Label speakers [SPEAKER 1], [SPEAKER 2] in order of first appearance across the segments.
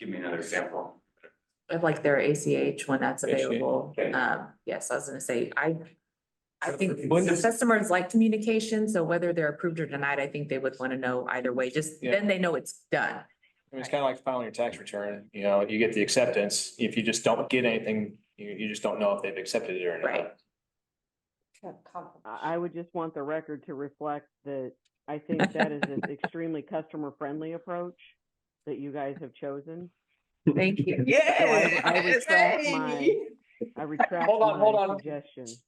[SPEAKER 1] an example.
[SPEAKER 2] of like their ACH when that's
[SPEAKER 1] ACH,
[SPEAKER 2] available.
[SPEAKER 1] okay.
[SPEAKER 2] Um, yes, I was gonna say, I, I
[SPEAKER 1] So
[SPEAKER 2] think
[SPEAKER 1] when does-
[SPEAKER 2] customers like communication, so whether they're approved or denied, I think they would want to know either way, just
[SPEAKER 3] Yeah.
[SPEAKER 2] then they know it's done.
[SPEAKER 3] I mean, it's kind of like filing your tax return, you know, you get the acceptance. If you just don't get anything, you, you just don't know if they've accepted it or not.
[SPEAKER 2] Right.
[SPEAKER 4] I I would just want the record to reflect that I think that is an extremely customer-friendly approach that you guys have chosen.
[SPEAKER 2] Thank you.
[SPEAKER 4] So I- I retract my, I retract
[SPEAKER 3] Hold on, hold
[SPEAKER 4] my
[SPEAKER 3] on.
[SPEAKER 4] suggestion. It's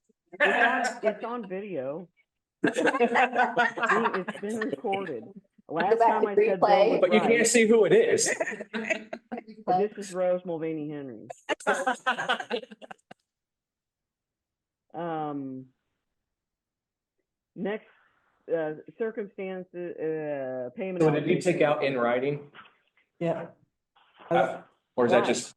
[SPEAKER 4] on- it's on video. Being- It's been recorded. Last
[SPEAKER 5] back
[SPEAKER 4] time
[SPEAKER 5] and
[SPEAKER 4] I said
[SPEAKER 5] replay.
[SPEAKER 4] Bill
[SPEAKER 3] But you can't
[SPEAKER 4] was
[SPEAKER 3] see who it is.
[SPEAKER 4] right. This is Rose Mulvaney Henry. Um. Next, uh, circumstances, uh, payment.
[SPEAKER 3] So did you
[SPEAKER 4] obligation.
[SPEAKER 3] take out in writing?
[SPEAKER 6] Yeah.
[SPEAKER 3] Uh, Or is that just,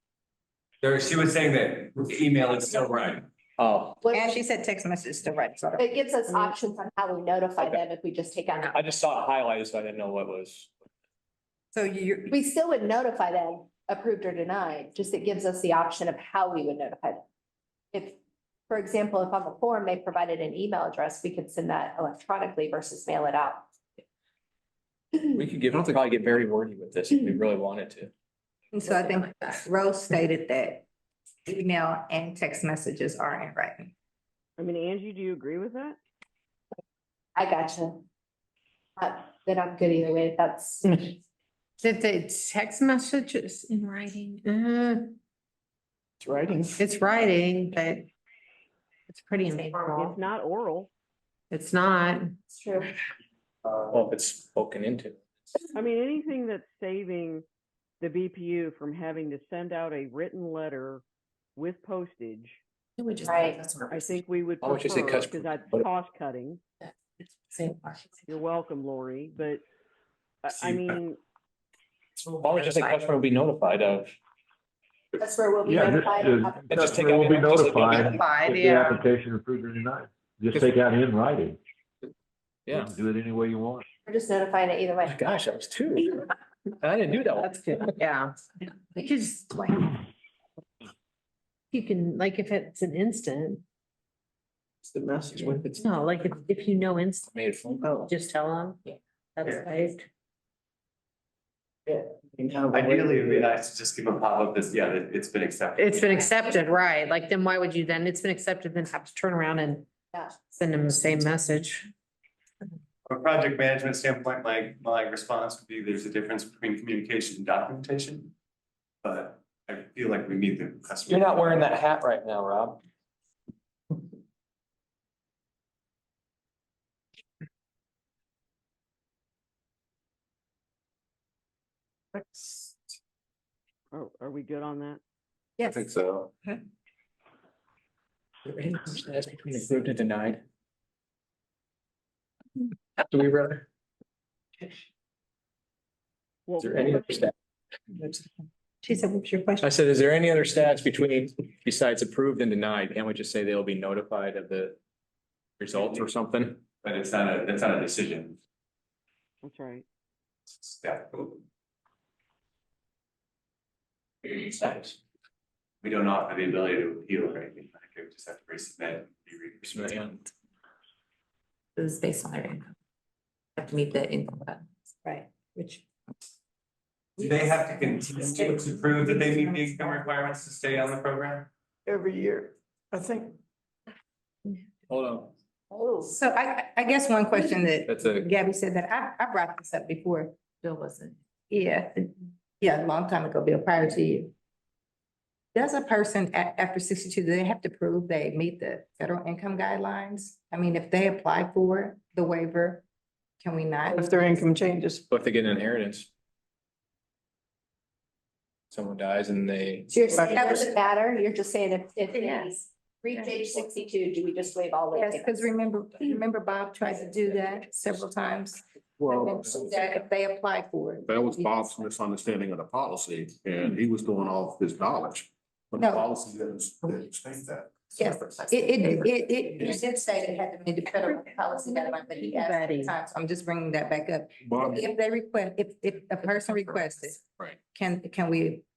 [SPEAKER 1] There, she was saying that email is still right.
[SPEAKER 3] oh,
[SPEAKER 6] And she said text message to write. so.
[SPEAKER 5] It gives us options on how we notify
[SPEAKER 3] Okay.
[SPEAKER 5] them if we just take out.
[SPEAKER 3] I just saw it highlighted, so I didn't know what was.
[SPEAKER 6] So you,
[SPEAKER 5] We still would notify them, approved or denied, just it gives us the option of how we would notify them. If, for example, if on the form they provided an email address, we could send that electronically versus mail it out.
[SPEAKER 3] We could give, I don't think I'd get very wordy with this if we really wanted to.
[SPEAKER 6] and so I think
[SPEAKER 2] Something like that.
[SPEAKER 6] Rose stated that email and text messages are in writing.
[SPEAKER 4] I mean, Angie, do you agree with that?
[SPEAKER 5] I gotcha. Uh, Then I'm good either way, that's.
[SPEAKER 3] Hmm.
[SPEAKER 7] Did they text messages in writing? Uh,
[SPEAKER 6] It's writing.
[SPEAKER 7] it's writing, but it's pretty
[SPEAKER 4] It's
[SPEAKER 7] informal.
[SPEAKER 4] not oral.
[SPEAKER 7] It's not.
[SPEAKER 5] It's true.
[SPEAKER 3] Well, if it's spoken into.
[SPEAKER 4] I mean, anything that's saving the BPU from having to send out a written letter with postage,
[SPEAKER 2] It would just.
[SPEAKER 5] Right.
[SPEAKER 4] I think we would
[SPEAKER 3] Why don't you say
[SPEAKER 4] prefer,
[SPEAKER 3] cuts-
[SPEAKER 4] because that's cost cutting.
[SPEAKER 2] Same.
[SPEAKER 4] You're welcome, Lori, but I, I
[SPEAKER 3] uh,
[SPEAKER 1] See,
[SPEAKER 4] mean,
[SPEAKER 3] Why would you say customer will be notified of?
[SPEAKER 5] That's where we'll be
[SPEAKER 8] Yeah,
[SPEAKER 5] notified.
[SPEAKER 8] just-
[SPEAKER 5] of-
[SPEAKER 3] And just take
[SPEAKER 8] Customer
[SPEAKER 3] out
[SPEAKER 8] will be
[SPEAKER 3] in- just-
[SPEAKER 8] notified
[SPEAKER 7] Applied,
[SPEAKER 8] If the
[SPEAKER 7] yeah.
[SPEAKER 8] application approved or denied, just take out in writing. You
[SPEAKER 3] Yeah.
[SPEAKER 8] can Do it any way you want.
[SPEAKER 5] We're just notifying it either way.
[SPEAKER 3] Gosh, I was two. I didn't do that one.
[SPEAKER 7] That's good, yeah. You could just like. You can, like, if it's an instant,
[SPEAKER 6] The message
[SPEAKER 3] when it's
[SPEAKER 7] no, like, if, if you know instant,
[SPEAKER 3] made a phone call.
[SPEAKER 2] Oh.
[SPEAKER 7] just tell them.
[SPEAKER 2] Yeah.
[SPEAKER 7] That's right.
[SPEAKER 1] Ideally, it'd be nice to just give a pop up this, yeah, that it's been accepted.
[SPEAKER 7] It's been accepted, right? Like, then why would you then, it's been accepted, then have to turn around and
[SPEAKER 5] Yeah.
[SPEAKER 7] send them the same message.
[SPEAKER 1] From a project management standpoint, my, my response would be there's a difference between communication and documentation. But I feel like we need the customer.
[SPEAKER 3] You're not wearing that hat right now, Rob.
[SPEAKER 4] are, oh, are we good on that?
[SPEAKER 1] I think so.
[SPEAKER 3] That's between approved and denied. Do we rather?
[SPEAKER 4] Well,
[SPEAKER 3] Is there any other stat?
[SPEAKER 6] She said, what's your question?
[SPEAKER 3] I said, is there any other stats between, besides approved and denied? Can't we just say they'll be notified of the results or something?
[SPEAKER 1] But it's not a, that's not a decision.
[SPEAKER 4] That's right.
[SPEAKER 1] It's that-
[SPEAKER 3] Stats.
[SPEAKER 1] We don't offer the ability to appeal or anything. like that. We just have to resubmit. be re-resubmitted.
[SPEAKER 2] This is based on their income. Have to meet the income. level.
[SPEAKER 6] Right, which.
[SPEAKER 1] Do they have to continue to prove that they meet the income requirements to stay on the program?
[SPEAKER 6] Every year, I think.
[SPEAKER 3] Hold on,
[SPEAKER 5] Oh.
[SPEAKER 6] So I, I guess one question that
[SPEAKER 3] that's a,
[SPEAKER 6] Gabby said that I, I brought this up before.
[SPEAKER 2] Bill wasn't.
[SPEAKER 6] Yeah, yeah, a long time ago, Bill, prior to you. Does a person a- after sixty-two, do they have to prove they meet the federal income guidelines? I mean, if they apply for the waiver, can we not?
[SPEAKER 9] If their income changes,
[SPEAKER 3] but they get an inheritance. Someone dies and they,
[SPEAKER 5] So you're saying it
[SPEAKER 6] That was-
[SPEAKER 5] doesn't matter, you're just saying if, if they
[SPEAKER 6] Yes.
[SPEAKER 5] reach age sixty-two, do we just waive all
[SPEAKER 6] Yes,
[SPEAKER 5] the?
[SPEAKER 6] because remember, remember Bob tried to do that several times. And so That if they apply for it.
[SPEAKER 10] That was Bob's misunderstanding of the policy, and he was going off his knowledge. But the
[SPEAKER 6] No.
[SPEAKER 10] policy doesn't, doesn't state that.
[SPEAKER 6] Yes, it, it, it, it, it did say they had to meet the federal policy guidelines, but he asked
[SPEAKER 7] Everybody.
[SPEAKER 6] at times, I'm just bringing that back up.
[SPEAKER 10] Bob,
[SPEAKER 6] If they request, if, if a person requests it.
[SPEAKER 10] Right.
[SPEAKER 6] Can, can we